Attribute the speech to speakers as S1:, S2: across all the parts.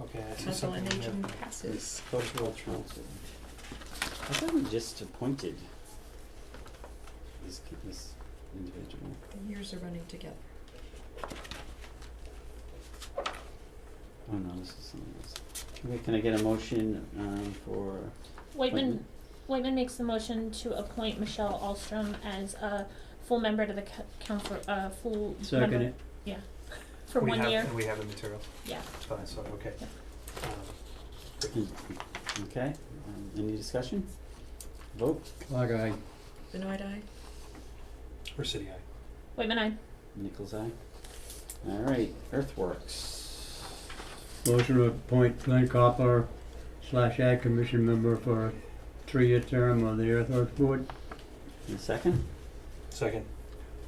S1: Okay, I see
S2: Council
S1: something
S2: on
S1: in there.
S2: Aging passes.
S1: Cultural council.
S3: I thought we just appointed this, ki- this individual.
S2: The years are running together.
S3: Oh no, this is something else. Can we, can I get a motion, um, for,
S4: Whitman, Whitman makes the motion to appoint Michelle Alstrom as a full member to the co- council, uh, full
S3: second
S4: member
S3: it?
S4: for
S1: We
S4: one
S1: have-
S4: year.
S1: And we have the materials.
S4: Yeah.
S1: Fine, so, okay.
S4: Yeah.
S1: Um,
S3: Okay, um, any discussion? Vote,
S5: Clog eye.
S2: Benoit Eye?
S1: Residency, aye.
S4: Whitman, I.
S3: Nichols eye. Alright, Earthworks.
S5: Motion to appoint Glenn Copper slash Ag Commission member for a three-year term on the Earthworks Board.
S3: And a second,
S1: Second,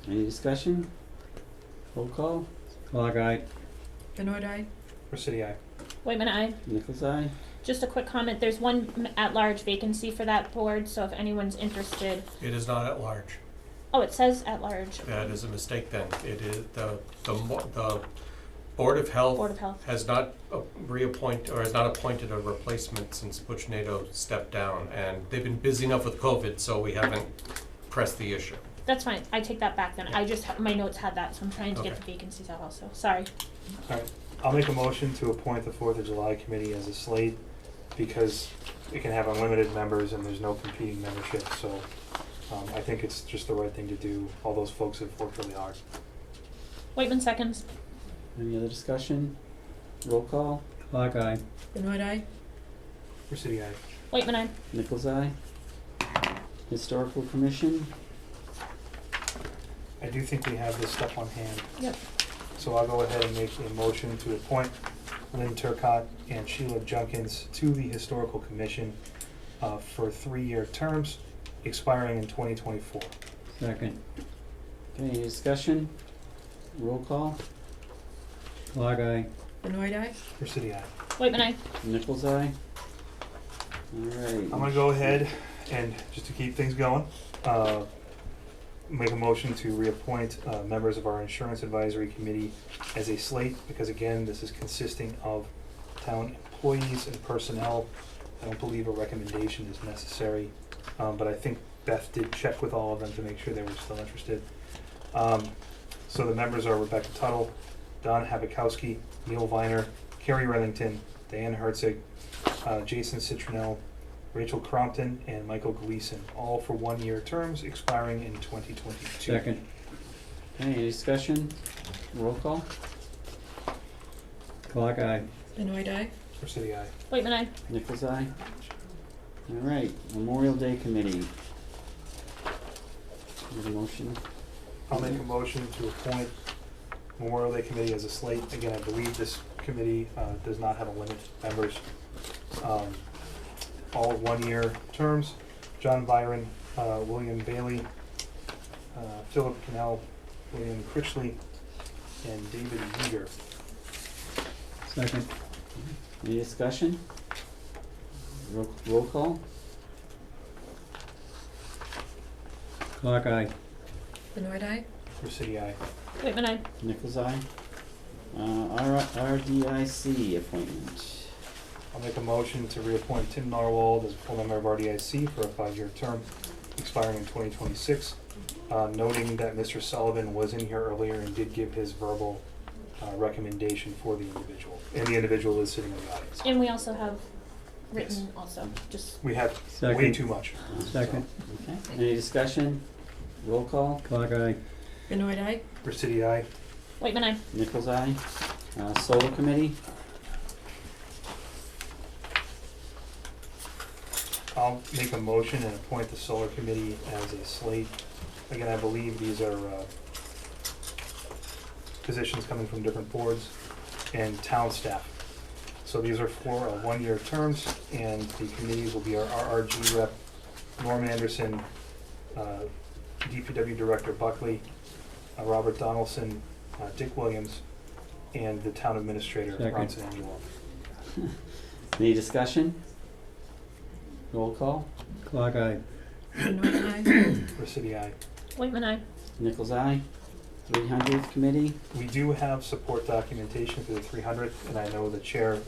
S3: any discussion? Roll call,
S5: Clog eye.
S2: Benoit Eye?
S1: Residency, aye.
S4: Whitman, I.
S3: Nichols eye.
S4: Just a quick comment, there's one m- at-large vacancy for that board, so if anyone's interested,
S6: It is not at large.
S4: oh, it says at-large,
S6: That is a mistake then. It is, the, the, mo- the Board of Health
S4: Board of Health.
S6: has not uh, reappoint, or has not appointed a replacement since Butch Nato stepped down. And they've been busy enough with COVID, so we haven't pressed the issue.
S4: That's fine, I take that back then, I just, ha- my notes had that, so I'm trying to get
S6: Okay.
S4: the vacancies out also, sorry.
S1: Alright, I'll make a motion to appoint the Fourth of July Committee as a slate because it can have unlimited members and there's no competing membership, so um, I think it's just the right thing to do. All those folks have worked really hard.
S4: Whitman seconds,
S3: Any other discussion? Roll call,
S5: Clog eye.
S2: Benoit Eye?
S1: Residency, aye.
S4: Whitman, I.
S3: Nichols eye. Historical Commission,
S1: I do think we have this stuff on hand.
S4: Yep.
S1: So I'll go ahead and make a motion to appoint Lynn Turcott and Sheila Junkins to the Historical Commission uh, for three-year terms expiring in twenty twenty-four.
S5: Second.
S3: okay, any discussion? Roll call,
S5: Clog eye.
S2: Benoit Eye?
S1: Residency, aye.
S4: Whitman, I.
S3: Nichols eye. Alright.
S1: I'm gonna go ahead and, just to keep things going, uh, make a motion to reappoint, uh, members of our insurance advisory committee as a slate, because again, this is consisting of town employees and personnel. I don't believe a recommendation is necessary, um, but I think Beth did check with all of them to make sure they were still interested. Um, so the members are Rebecca Tuttle, Don Habakowski, Neil Viner, Carrie Reddington, Diane Herzig, uh, Jason Citronell, Rachel Crompton and Michael Gleason, all for one-year terms expiring in 2022.
S5: Second.
S3: Okay, any discussion? Roll call?
S5: Clog eye.
S2: Benoit Eye?
S1: For City Eye.
S4: Whitman, I.
S3: Nichols eye? Alright, Memorial Day Committee. Need a motion?
S1: I'll make a motion to appoint Memorial Day Committee as a slate. Again, I believe this committee uh, does not have a limit of members. Um, All one-year terms, John Byron, uh, William Bailey, uh, Philip Cannell, William Critchley, and David Yeager.
S5: Second.
S3: Any discussion? Roll, roll call?
S5: Clog eye.
S2: Benoit Eye?
S1: For City Eye.
S4: Whitman, I.
S3: Nichols eye? Uh, R, RDIC appointment.
S1: I'll make a motion to reappoint Tim Narwhal as a full member of RDIC for a five-year term expiring in twenty twenty-six. Uh, noting that Mr. Sullivan was in here earlier and did give his verbal, uh, recommendation for the individual, and the individual is sitting in the audience.
S4: And we also have written
S1: Yes.
S4: also, just
S1: We have way
S5: Second.
S1: too much.
S5: Second.
S3: Okay, any discussion? Roll call?
S5: Clog eye.
S2: Benoit Eye?
S1: Recity, aye.
S4: Whitman, I.
S3: Nichols eye? Uh, Solar Committee?
S1: I'll make a motion and appoint the solar committee as a slate. Again, I believe these are, uh, positions coming from different boards and town staff. So these are for, uh, one-year terms, and the committees will be our RRG rep, Norm Anderson, uh, DPW Director Buckley, uh, Robert Donaldson, uh, Dick Williams, and the town administrator,
S5: Second.
S1: Ron Sanangelo.
S3: Any discussion? Roll call?
S5: Clog eye.
S2: Benoit Eye?
S1: Recity, aye.
S4: Whitman, I.
S3: Nichols eye? Three hundredth Committee?
S1: We do have support documentation for the three hundredth, and I know the chair